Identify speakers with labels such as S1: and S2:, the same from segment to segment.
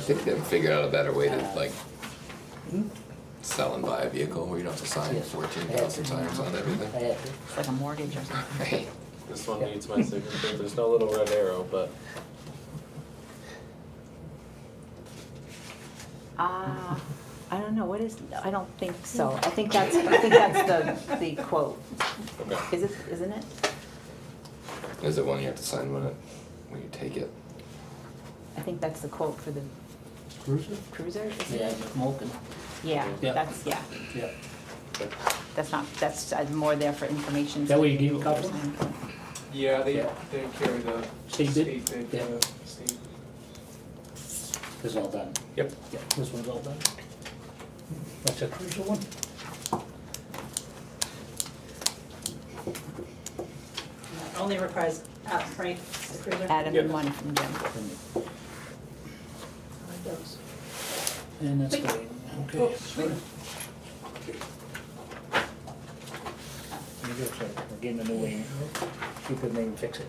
S1: think they've figured out a better way to like sell and buy a vehicle where you don't have to sign
S2: Yes.
S1: fourteen thousand times on
S2: I
S1: everything.
S2: had to.
S3: It's like a mortgage or something.
S1: Right.
S4: This one needs my signature, there's no little red arrow, but
S3: Ah, I don't know, what is, I don't think so. I think that's, I think that's the, the quote.
S4: okay.
S3: Is it, isn't it?
S1: Is it one you have to sign when it, when you take it?
S3: I think that's the quote for the
S2: Cruiser?
S3: cruiser, isn't
S2: Yeah,
S3: it?
S2: Molten,
S3: Yeah,
S2: Yeah.
S3: that's, yeah,
S2: yeah.
S3: that's not, that's uh, more there for information.
S2: Is that what you gave a couple?
S5: Yeah, they,
S2: Yeah.
S5: they carry the
S2: State
S5: state
S2: bid?
S5: bid for
S2: Yeah.
S5: the state.
S2: This is all done.
S4: Yep.
S2: Yeah, this one's all done. That's a crucial one.
S6: Only requires, uh, Frank, the cruiser.
S3: Adam
S4: Yeah.
S3: and one from Jim.
S6: I like those.
S2: And that's
S6: Wait.
S2: great. Okay.
S6: Oh,
S2: sorry. There you go, sir. We're getting a new wing. You could maybe fix it.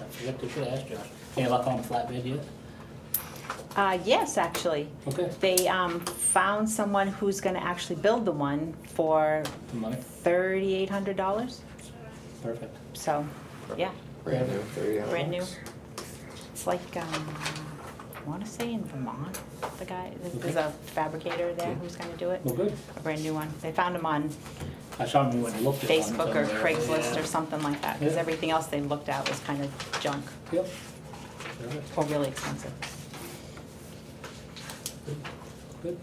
S2: I forgot to should ask Josh. Any luck on flatbed yet?
S3: Uh, yes, actually.
S2: Okay.
S3: They, um, found someone who's gonna actually build the one for
S2: Money?
S3: thirty-eight hundred dollars,
S2: Perfect.
S3: so, yeah,
S1: Brand new, thirty hours?
S3: brand new. It's like, um, I wanna say in Vermont, the guy, there's a fabricator there who's gonna do it,
S2: Well, good.
S3: a brand new one. They found him on
S2: I saw him when he looked at one.
S3: Facebook or Craigslist or something like that, because
S2: Yeah.
S3: everything else they looked at was kind of junk
S2: something. Yep. Perfect.
S3: or really expensive.
S2: Good.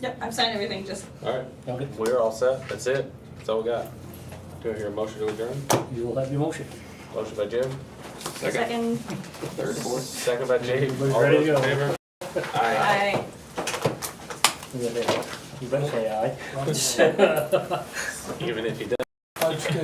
S6: Yep, I've signed everything, just
S4: Alright,
S2: Okay,
S4: we're all set, that's it, that's all we got. Do I hear a motion to adjourn?
S2: you will have your motion.
S4: Motion by Jim,
S1: Second,
S6: second,
S1: third, fourth?
S4: second by Jake,
S2: Everybody's
S4: all
S2: ready
S4: those
S2: to
S4: in
S2: go.
S4: favor? Aye.
S6: I,
S2: 哎 You better say aye.
S4: Even if he does.